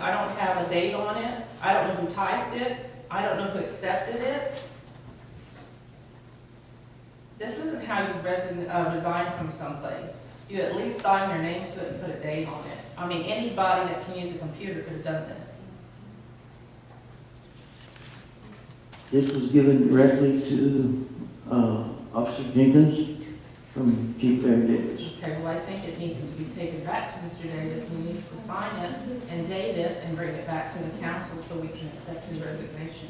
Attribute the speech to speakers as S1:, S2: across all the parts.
S1: I don't have a date on it, I don't know who typed it, I don't know who accepted it. This isn't how you resign, uh, resign from someplace. You at least sign your name to it and put a date on it. I mean, anybody that can use a computer could have done this.
S2: This was given directly to uh, Officer Jenkins from Chief Larry Davis.
S1: Okay, well, I think it needs to be taken back to Mr. Davis, and he needs to sign it and date it and bring it back to the council so we can accept his resignation.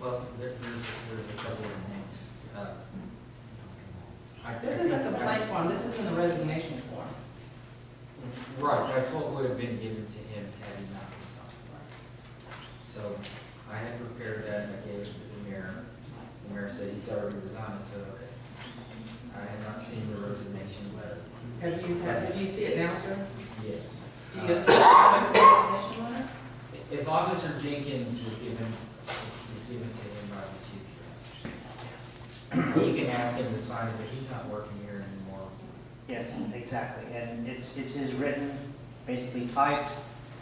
S3: Well, there- there's, there's a couple of names. uh, I-
S1: This is a complaint form, this isn't a resignation form.
S3: Right, that's what would have been given to him had he not resigned. right. So I had prepared that, I gave it to the mayor. The mayor said he's already resigned, so okay. I had not seen the resignation letter.
S1: Have you, have, do you see it now, sir?
S3: Yes.
S1: Do you accept the resignation letter?
S3: If Officer Jenkins was given, was given to him by the chief, yes. You can ask him to sign it, but he's not working here anymore.
S4: Yes, exactly, and it's, it's his written, basically typed,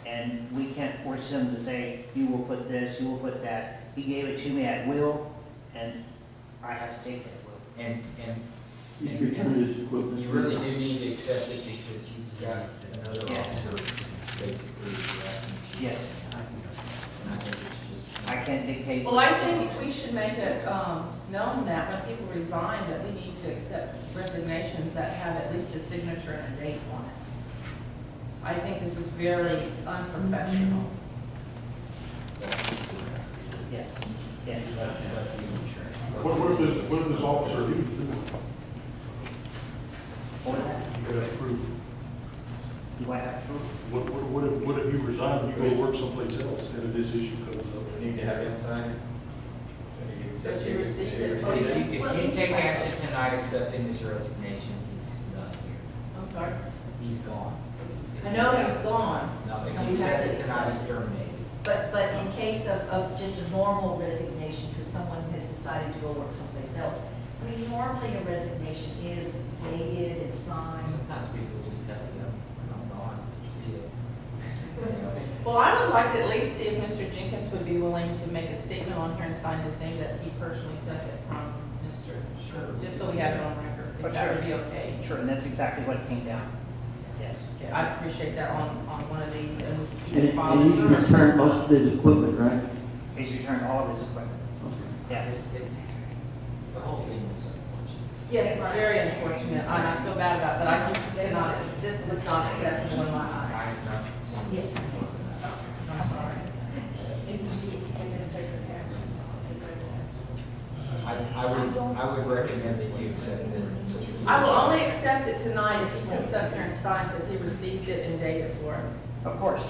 S4: and we can't force him to say, you will put this, you will put that. He gave it to me at will, and I have to take it at will.
S3: And, and
S2: He's returned his equipment.
S3: You really do need to accept it because you've got another
S4: Yes.
S3: officer basically. uh,
S4: Yes.
S3: And I think it's just.
S4: I can't dictate.
S1: Well, I think we should make it, um, known that when people resign, that we need to accept resignations that have at least a signature and a date on it. I think this is very unprofessional.
S4: Yes, yes.
S3: That's the insurance.
S5: What, what if this, what if this officer, he he
S4: What was that?
S5: could have approved,
S4: Do I have to prove?
S5: what, what, what if, what if you resign, you go work someplace else, and this issue comes
S6: We
S5: up?
S6: need to have him sign it.
S1: That you received it.
S3: So if
S6: it.
S3: you, if you take action tonight accepting his resignation, he's not here.
S1: I'm sorry.
S3: He's gone.
S1: I know he's gone,
S3: No, if
S7: And
S3: you
S7: we have
S3: accept
S7: to
S3: it tonight,
S7: accept
S3: he's terminated.
S7: But, but in case of, of just a normal resignation, because someone has decided to go work someplace else, I mean, normally a resignation is dated and signed.
S3: Sometimes people just tell you, I'm gone, just deal.
S1: Well, I would like to at least see if Mr. Jenkins would be willing to make a statement on here and sign his name that he personally took it from Mr. Sherwood, just so we have it on record, if that would be okay.
S4: Sure, and that's exactly what came down. Yes.
S1: Okay, I'd appreciate that on, on one of these, and we can keep it
S2: And and he's
S1: following.
S2: returned most of his equipment, right?
S4: He's returned all of his equipment. Yes.
S3: It's, it's, the whole thing is unfortunate.
S1: Yes, it's very unfortunate, and I feel bad about it, but I just cannot, this is not acceptable in my
S3: I
S1: eyes.
S3: have not seen this
S7: Yes.
S3: before. uh,
S1: I'm sorry.
S3: I, I would, I would recommend that you accept it. so we-
S1: I will only accept it tonight if he comes up here and signs that he received it and dated for us.
S4: Of course,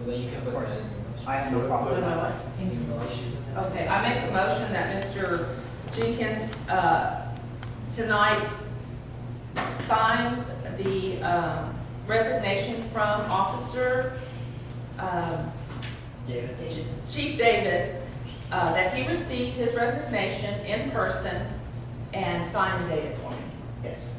S3: Well, then you can put that in your motion.
S4: I have no problem
S1: No,
S4: with
S1: no,
S4: that.
S1: I-
S3: In your motion.
S1: Okay, I make a motion that Mr. Jenkins, uh, tonight signs the um, resignation from Officer, um,
S4: Davis?
S1: Chief Davis, uh, that he received his resignation in person and signed and dated for me.
S4: Yes.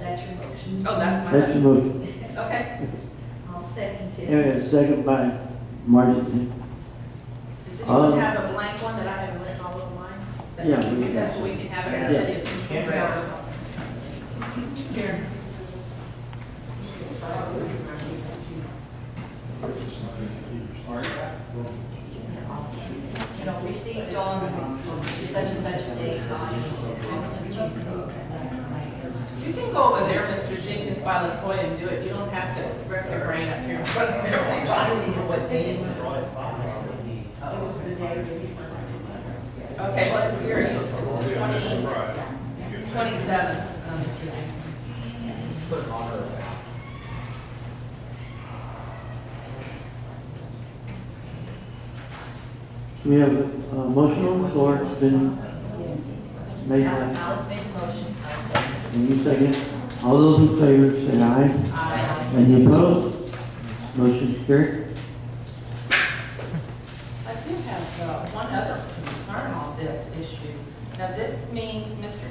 S7: That's your motion.
S1: Oh, that's my
S2: That's your
S1: motion.
S2: motion.
S1: Okay,
S7: I'll second
S2: And
S7: it.
S2: a second by Martin.
S1: does anyone
S2: Um,
S1: have a blank one that I have written all over mine? That-
S2: Yeah, we can-
S1: That's what we can have in the
S4: Yeah.
S1: city. of-
S4: Yeah.
S7: Here. You know, received on such and such a date by Officer Jenkins.
S1: You can go over there, Mr. Jenkins, by Latoya and do it. You don't have to wreck your brain up here.
S7: I don't even know what date it was.
S1: Okay, what is your, it's twenty, twenty-seven, uh, Mr. Jenkins.
S3: Just put an honor of that.
S2: We have a motion on the floor, it's been made by,
S7: Alice made the motion, I second.
S2: and you second. All those in favor say aye.
S1: I,
S2: Any opposed? Motion carried.
S1: I do have, uh, one other concern on this issue. Now, this means Mr.